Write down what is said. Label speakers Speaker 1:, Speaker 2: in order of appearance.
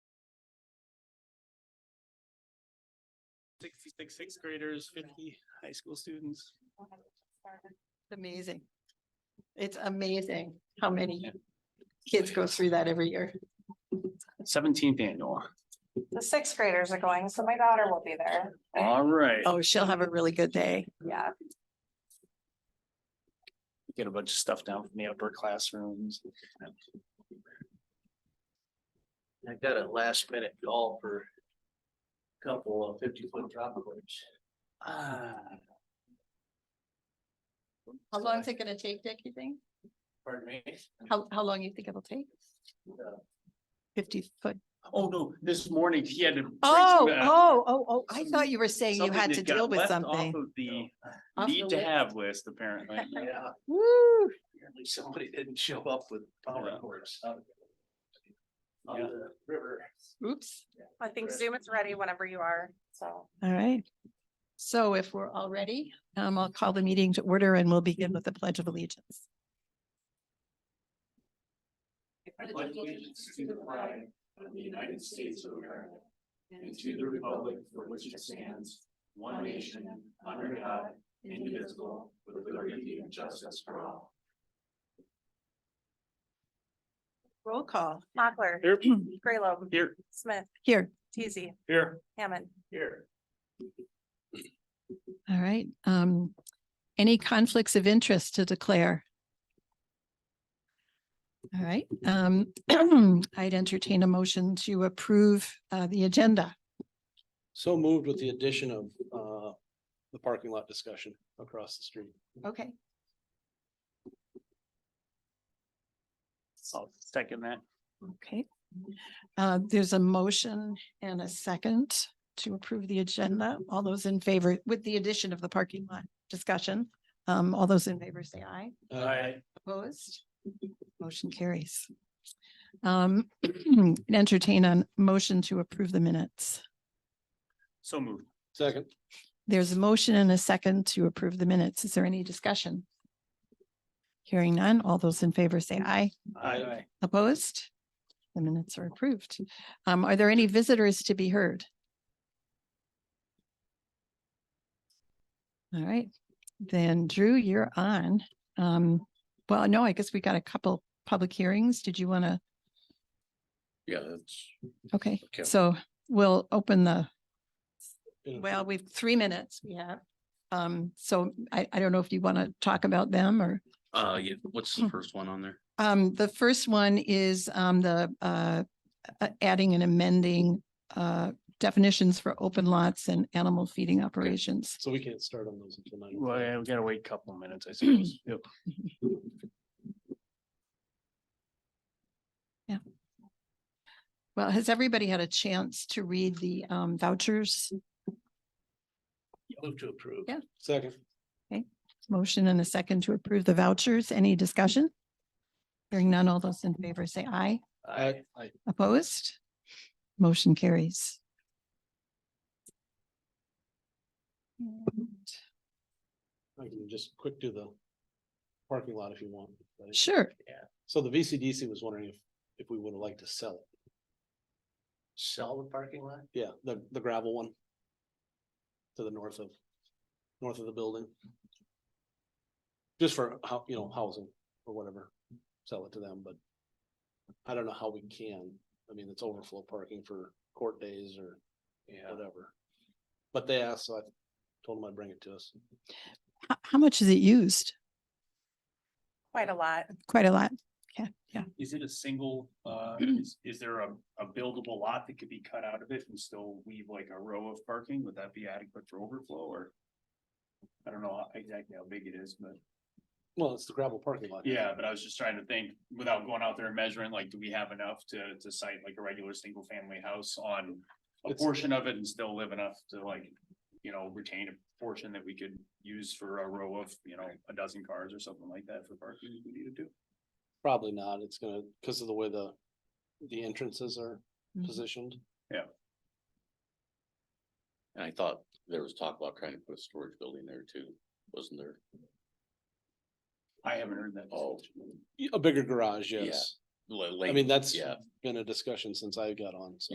Speaker 1: Sixty-six sixth graders, fifty high school students.
Speaker 2: It's Amazing. It's amazing how many kids go through that every year.
Speaker 1: Seventeenth annual.
Speaker 3: The sixth graders are going, so my daughter will be there.
Speaker 1: All right.
Speaker 2: Oh, she'll have a really good day.
Speaker 3: Yeah,
Speaker 1: Get a bunch of stuff down from the upper classrooms.
Speaker 4: I got a last minute call for a couple of fifty foot drop points.
Speaker 1: Ah,
Speaker 2: How long is it gonna take, Dick, you think?
Speaker 4: Pardon me?
Speaker 2: How, how long you think it'll take?
Speaker 4: Uh,
Speaker 2: Fifty foot?
Speaker 1: oh no, this morning he had to. bring some,
Speaker 2: Oh,
Speaker 1: uh,
Speaker 2: oh, oh, oh, I
Speaker 1: some-
Speaker 2: thought you were saying you
Speaker 1: something
Speaker 2: had
Speaker 1: that
Speaker 2: to
Speaker 1: got
Speaker 2: deal with
Speaker 1: left off
Speaker 2: something.
Speaker 1: of The
Speaker 2: Off the
Speaker 1: need to
Speaker 2: list.
Speaker 1: have list, apparently.
Speaker 4: Yeah,
Speaker 2: Woo,
Speaker 4: apparently somebody didn't show up with power
Speaker 1: Yeah.
Speaker 4: cords. On the river.
Speaker 2: oops.
Speaker 3: I think Zoom is ready whenever you are, so.
Speaker 2: All right. So if we're all ready, um, I'll call the meeting to order and we'll begin with the Pledge of Allegiance.
Speaker 4: I pledge allegiance to the flag of the United States of America and to the republic for which it stands, one nation, under God, indivisible, with liberty and justice for all.
Speaker 2: Roll call
Speaker 3: Mochler,
Speaker 1: Here,
Speaker 3: Graylobe,
Speaker 1: here,
Speaker 3: Smith,
Speaker 2: here.
Speaker 3: Teasy,
Speaker 1: here,
Speaker 3: Hammond.
Speaker 1: here.
Speaker 2: All right, um, any conflicts of interest to declare? All right, um, I'd entertain a motion to approve, uh, the agenda.
Speaker 5: So moved with the addition of uh the parking lot discussion across the street.
Speaker 2: Okay.
Speaker 1: I'll second that.
Speaker 2: Okay. Uh, there's a motion and a second to approve the agenda. All those in favor, with the addition of the parking lot discussion, um, all those in favor say aye.
Speaker 5: Uh,
Speaker 1: Aye.
Speaker 2: Opposed? Motion carries. Um, entertain a motion to approve the minutes.
Speaker 1: So moved.
Speaker 5: Second,
Speaker 2: There's a motion and a second to approve the minutes. Is there any discussion? Hearing none, all those in favor say aye.
Speaker 1: Aye.
Speaker 2: Opposed? The minutes are approved. Um, are there any visitors to be heard? All right, then Drew, you're on. Um, well, no, I guess we got a couple public hearings. Did you want to?
Speaker 6: Yeah, that's,
Speaker 2: Okay,
Speaker 6: Okay.
Speaker 2: so we'll open the,
Speaker 5: Yeah.
Speaker 2: well, we've three minutes we have. Um, so I, I don't know if you want to talk about them or,
Speaker 6: uh, yeah, what's the first one on there?
Speaker 2: um, the first one is, um, the, uh, uh, adding and amending, uh, definitions for open lots and animal feeding operations.
Speaker 5: so we can't start on those until nine.
Speaker 1: Well, yeah, we gotta wait a couple of minutes, I suppose. Yep.
Speaker 2: Well, has everybody had a chance to read the, um, vouchers?
Speaker 4: Move to approve.
Speaker 2: Yeah.
Speaker 5: Second,
Speaker 2: Motion and a second to approve the vouchers. Any discussion? Hearing none, all those in favor say aye.
Speaker 5: Aye.
Speaker 2: Opposed? Motion carries. And-
Speaker 5: I can just quick do the parking lot if you want. right?
Speaker 2: Sure,
Speaker 5: So the VCDC was wondering if if we would have liked to sell it.
Speaker 4: Sell the parking lot?
Speaker 5: Yeah, the the gravel one. To the north of, north of the building. Just for how, you know, housing or whatever, sell it to them, but. I don't know how we can. I mean, it's overflow parking for court days or
Speaker 4: Yeah.
Speaker 5: whatever. But they asked, so I told them I'd bring it to us.
Speaker 2: how, how much is it used?
Speaker 3: Quite a lot.
Speaker 2: Quite a lot.
Speaker 1: Is it a single, uh, is, is there a, a buildable lot that could be cut out of it and still weave like a row of parking? Would that be adequate for overflow or? I don't know exactly how big it is, but
Speaker 5: Well, it's the gravel parking lot.
Speaker 1: yeah, but I was just trying to think without going out there and measuring, like, do we have enough to, to site like a regular single family house on? A
Speaker 5: It's-
Speaker 1: portion of it and still live enough to like, you know, retain a portion that we could use for a row of, you know, a dozen cars or something like that for parking if we needed to.
Speaker 5: Probably not. It's gonna, because of the way the, the entrances are
Speaker 2: Mhm.
Speaker 5: positioned.
Speaker 6: And I thought there was talk about trying to put a storage building there too, wasn't there?
Speaker 1: I haven't heard that.
Speaker 6: Oh.
Speaker 5: A bigger garage,
Speaker 6: Yeah.
Speaker 5: yes.
Speaker 6: Like-
Speaker 5: I mean, that's
Speaker 6: yeah.
Speaker 5: been a discussion since I got on, so.